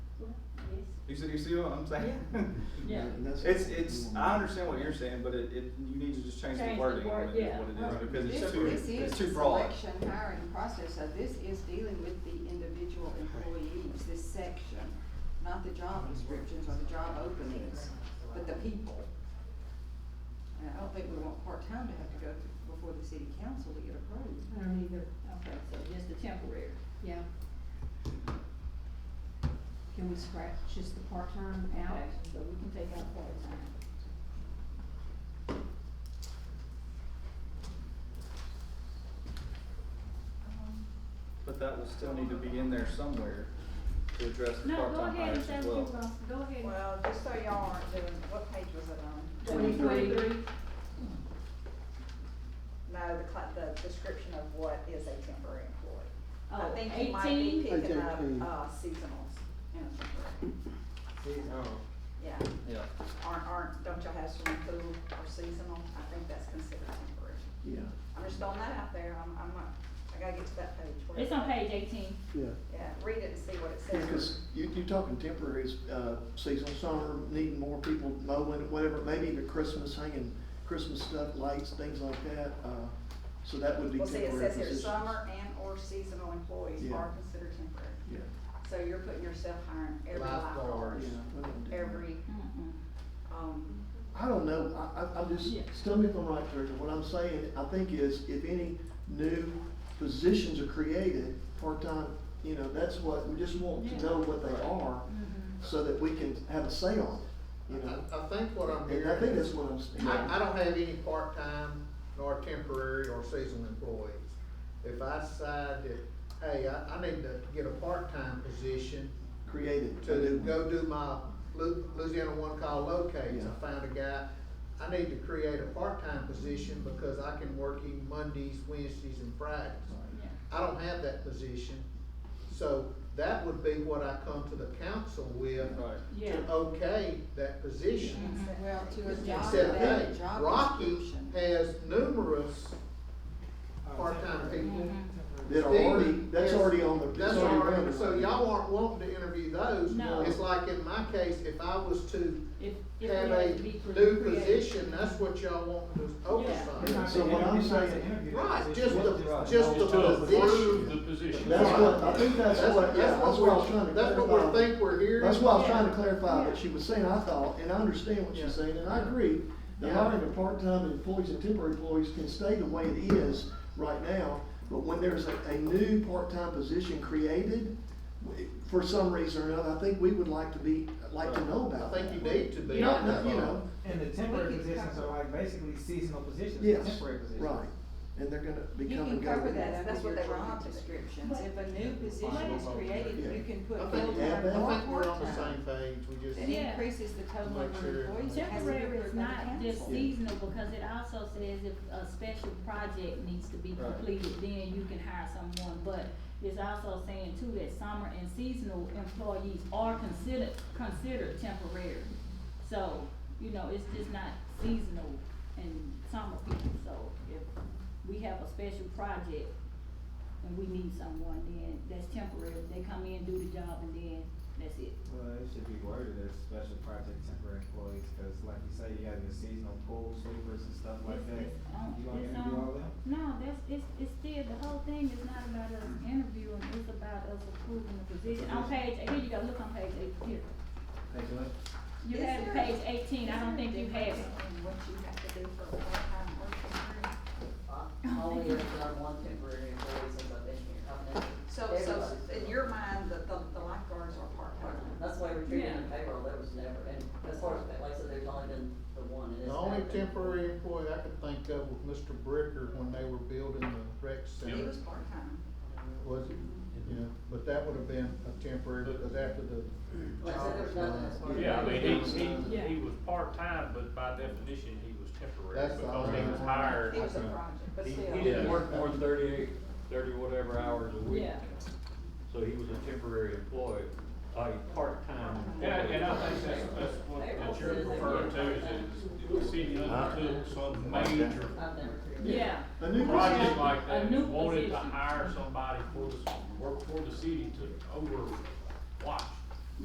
You see, you see what I'm saying? Yeah. And that's- It's, it's, I understand what you're saying, but it, it, you need to just change Change the the wording on word, it, yeah. is what it is, Right. because This, it's too, this is it's the too broad. selection hiring process, so this is dealing with the individual employees, this section, not the job descriptions or the job openings, but the people. And I don't think we want part-time to have to go to- before the city council to get approved. I don't either, Okay, so just the temporary. yeah. Can we scratch just the part-time out? Okay, so we can take out part-time. But that will still need to be in there somewhere to address the No, go part-time ahead, hires if as that's well. your problem, go ahead. Well, just so y'all aren't doing, what page was it on? Twenty-three. No, the cla- the description of what is a temporary employee. I Oh, think you might be 18? picking up, Eighteen. uh, seasonals in a temporary, yeah. Yeah. Aren't, aren't, don't y'all have swimming pool or seasonal? I think that's considered temporary. Yeah, I'm just throwing that out there, I'm, I'm not, I gotta get to that page. where- It's on page eighteen. yeah. Yeah, read it and see what it says. Because you, you're talking temporary, it's, uh, seasonal, summer, needing more people mowing, whatever, maybe even Christmas, hanging Christmas stuff, lights, things like that, uh, so that would be Well, see, temporary it says here, positions. summer and or seasonal employees Yeah. are considered temporary. Yeah, So you're putting yourself hiring every lifeguard, yeah. we don't do that. every, um, I don't know, I, I, I'm just, Yeah. tell me if I'm right, Teresa, what I'm saying, I think is, if any new positions are created, part-time, you know, that's what, we just want to know what they are, Mm-hmm. so that we can have a say on it, you know? I, I think what I'm hearing. And I think that's is- what I'm saying. I, I don't have any part-time nor temporary or seasonal employees. If I decide that, hey, I, I need to get a part-time position Created. a new to one. go do my Lu- Louisiana One Call locates, Yeah. I found a guy, I need to create a part-time position because I can work him Mondays, Wednesdays, and Fridays. I don't have that position, so that would be what I come to the council with, Right. Yeah. to okay that Mm-hmm. position. Well, to a job, Except hey, that job Rocky description. has numerous part-time people. That are already, Steve that's is- already on the. it's That's already already, running. so y'all aren't wanting to interview those. No. It's like in my case, if I was to If, if it have has a to be cre- new created. position, that's what y'all want to Yeah. oversight. So what I'm saying- Right, just the, Right. just the To approve the position. position. That's what, I Right. think that's That's, what, yeah, that's that's what what I was trying we're, to clarify. that's what we think we're hearing. That's why I was trying to Yeah. clarify Yeah. what she was saying, I thought, and I understand what Yeah. she's saying, and I agree. The Yeah. hiring of part-time employees and temporary employees can stay the way it is right now, but when there's a, a new part-time position created, w- for some reason or another, I think we would like to be, like to know I about think you that. need to be. You don't know, you involved. know, And the temporary positions are like basically seasonal positions, they're yes, temporary positions. right, and they're gonna You become can and go. cover with it. that That's under what your they were job doing. descriptions. If a new position is created, Yeah. you can put I think, full-time add that. or I think we're on the part-time. same page, we just. That Yeah. increases the total Make number of sure- employees. that has to be Temporary approved is by the not just council. seasonal, because it also says if a special project needs to be Right. completed, then you can hire someone, but it's also saying too that summer and seasonal employees are considered, considered temporary. So, you know, it's just not seasonal and summer people, so if we have a special project and we need someone, then that's temporary, they come in, do the job, and then that's it. Well, it should be worded as special project temporary employees, cause like you say, you have your seasonal pool sweepers and stuff like that. It's- it's on- You gonna it's interview on- all them? No, that's, it's, it's still, the whole thing is not about us interviewing, it's about us approving the position. On page, here you go, look on page eight, here. Hey, Joy? You Is have there- page eighteen, I don't think you have it. And what you have to do for a part-time worker. I I only ever done one temporary employee since I've been here, I've never. So, so in your mind, the, the the lifeguards are part-time. That's why we're treating them Yeah. payroll, there was never, and as far as, like I said, there's only been the one, and The it's. only happened. temporary employee I could think of was Mr. Bricker when they were building the rec He center. was part-time. Was it? Yeah, but that would have been a temporary, because after the. Like I said, job was there's nothing done. as far as. Yeah, I mean, he, Yeah. he, he was part-time, but by definition, he was temporary, That's the because he only was one. hired. He was a project, but He, still. he didn't Yeah. work more than thirty-eight, thirty whatever hours a week. Yeah. So he was a temporary employee, a part-time. Yeah, employee. and I think that's, that's what- that you're referring to, is that the city undertook some major I've never created. Yeah. A new project position, like A that, new wanted to position. hire somebody for the, work for the city to overwatch